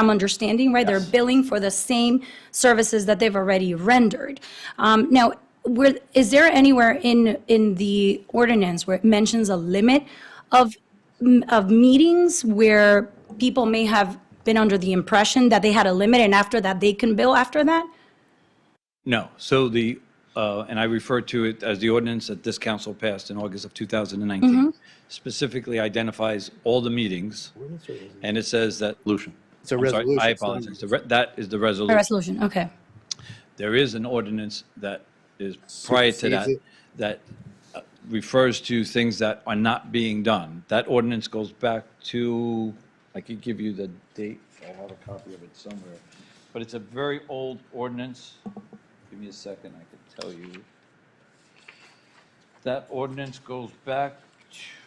I'm understanding, right? They're billing for the same services that they've already rendered. Um, Now, where, is there anywhere in, in the ordinance where it mentions a limit of, m- of meetings where people may have been under the impression that they had a limit and after that they can bill after that? No. So the, uh, and I refer to it as the ordinance that this council passed in August of 2019, specifically identifies all the meetings, and it says that. Resolution. It's a resolution. I It's not an apologize. The re- That is the A resolution. resolution, okay. There is an ordinance that is prior to that, Supersedes it. that uh, refers to things that are not being done. That ordinance goes back to, I could give you the date, I have a copy of it somewhere, but it's a very old ordinance. Give me a second, I could tell you. That ordinance goes back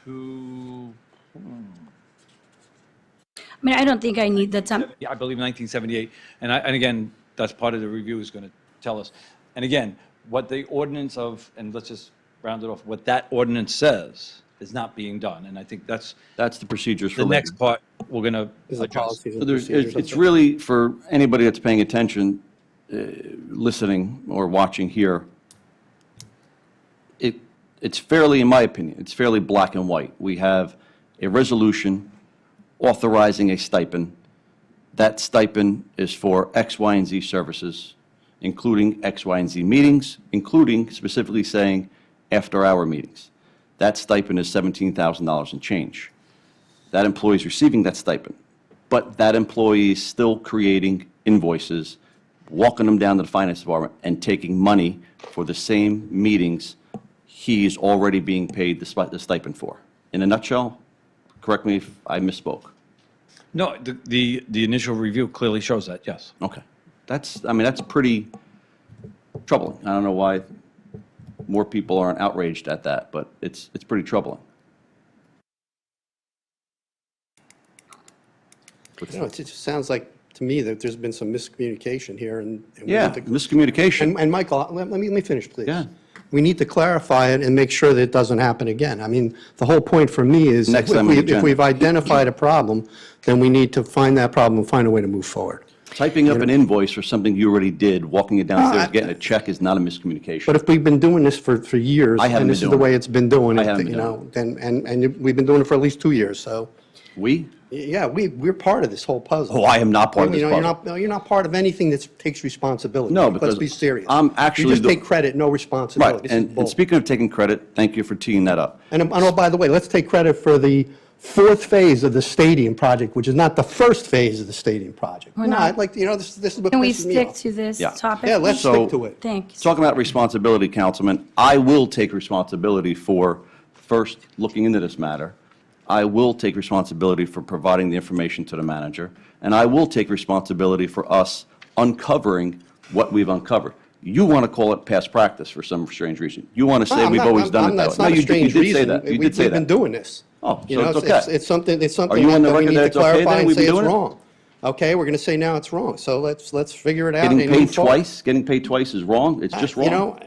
to, I mean, I don't think I need the time. yeah, I believe 1978. And I, and again, that's part of the review is going to tell us. And again, what the ordinance of, and let's just round it off, what that ordinance says is not being done. And I think that's That's the procedures for the later. next part we're going to Is the address. policies So and there's, procedures. it's it's really for anybody that's paying attention, uh, listening or watching here. It, it's fairly, in my opinion, it's fairly black and white. We have a resolution authorizing a stipend. That stipend is for X, Y, and Z services, including X, Y, and Z meetings, including specifically saying after-hour meetings. That stipend is $17,000 and change that employee is receiving that stipend, but that employee is still creating invoices, walking them down to the finance department, and taking money for the same meetings he is already being paid the spi- the stipend for. In a nutshell, correct me if I misspoke. No, the, the, the initial review clearly shows that, yes. Okay. That's, I mean, that's pretty troubling. I don't know why more people aren't outraged at that, but it's, it's pretty troubling. You know, it's- it just sounds like, to me, that there's been some miscommunication here, and. and we Yeah, need to- miscommunication. And, and Michael, let let me, let me finish, please. Yeah. We need to clarify it and make sure that it doesn't happen again. I mean, the whole point for me is. Next if time on we- the If agenda. we've identified a problem, then we need to find that problem, and find a way to move forward. Typing up an invoice for something you already did, walking it downstairs, Uh, I- getting a check is not a miscommunication. But if we've been doing this for, for years. I And haven't been this is the doing way it. it's been doing. I it, haven't been you doing know, Then, and, and we've been doing it for at least two years, so. We? y- Yeah, we, we're part of this whole puzzle. Oh, I am not part of You this know, you're puzzle. not- No, you're not part of anything that takes responsibility. No, Let's because be serious. I'm actually You just the- take credit, no Right, responsibility. This is and, bull. and speaking of taking credit, thank you for teeing that up. And, um, and oh, by the way, let's take credit for the fourth phase of the stadium project, which is not the first phase of the stadium project. No, I'd like, to- you know, this, this is what Can we pisses me stick off. to this Yeah. topic? Yeah, let's So- stick to it. Thank you. Talking about responsibility, Councilman, I will take responsibility for first looking into this matter. I will take responsibility for providing the information to the manager, and I will take responsibility for us uncovering what we've uncovered. You want to call it past practice for some strange reason. You want to say I'm we've not- always I'm- done I'm it not- that way. it's No, not a you did- you strange did say reason. that. You We- did say We've been that. doing this. Oh, You so know, it's okay. It's something, it's something you on the that we record need that to it's okay clarify then? and We've say been it's doing it? wrong. Okay, we're going to say now it's wrong, so let's, let's figure it out. Getting and move paid forward. Uh, twice, getting paid twice is wrong. It's just You know, wrong.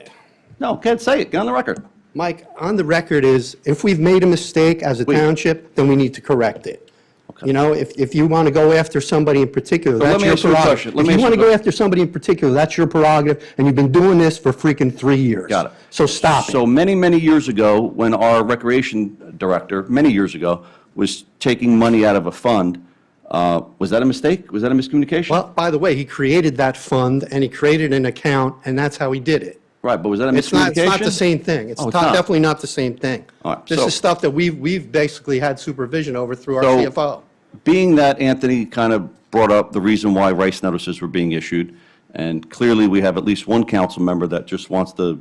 No, can't say it. Get on the record. Mike, on the record is, if we've made a mistake as a Wait. township, then we need to correct it. Okay. You know, if, if you want to go after somebody in particular, let that's me your ask you a prerogative. question. Let If me you ask you want to a go question. after somebody in particular, that's your prerogative, and you've been doing this for freaking three years. Got it. So stop So it. many, many years ago, when our recreation director, many years ago, was taking money out of a fund, uh, was that a mistake? Was that a miscommunication? Well, by the way, he created that fund, and he created an account, and that's how he did it. Right, but was that a It's not, miscommunication? it's not the same thing. It's Oh, it's not- not. definitely not the same thing. All right, This so- is stuff that we've, we've basically had supervision over through our So- CFO. Being that Anthony kind of brought up the reason why rice notices were being issued, and clearly we have at least one council member that just wants to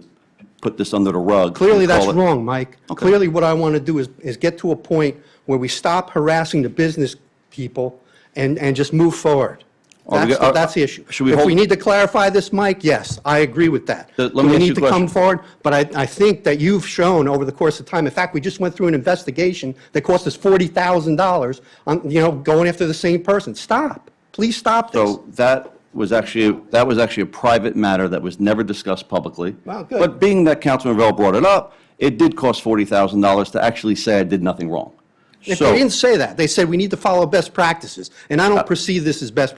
put this under the rug. and Clearly, that's call it- wrong, Mike. Clearly, what I want to do is, is get to a point where we stop harassing the business people and, and just move forward. Are we That's, go- the- that's the issue. should we If we hold- need to clarify this, Mike, yes, I agree with that. Th- Do let me we ask you need to a come question. forward? But I, I think that you've shown over the course of time, in fact, we just went through an investigation that cost us $40,000 on, you know, going after the same person. Stop. Please stop this. So that was actually, that was actually a private matter that was never discussed publicly. Wow, good. But being that Councilman Revelle brought it up, it did cost $40,000 to actually say I did nothing wrong. If So- Uh, they didn't say that, they said we need to follow best practices, and I don't perceive this as best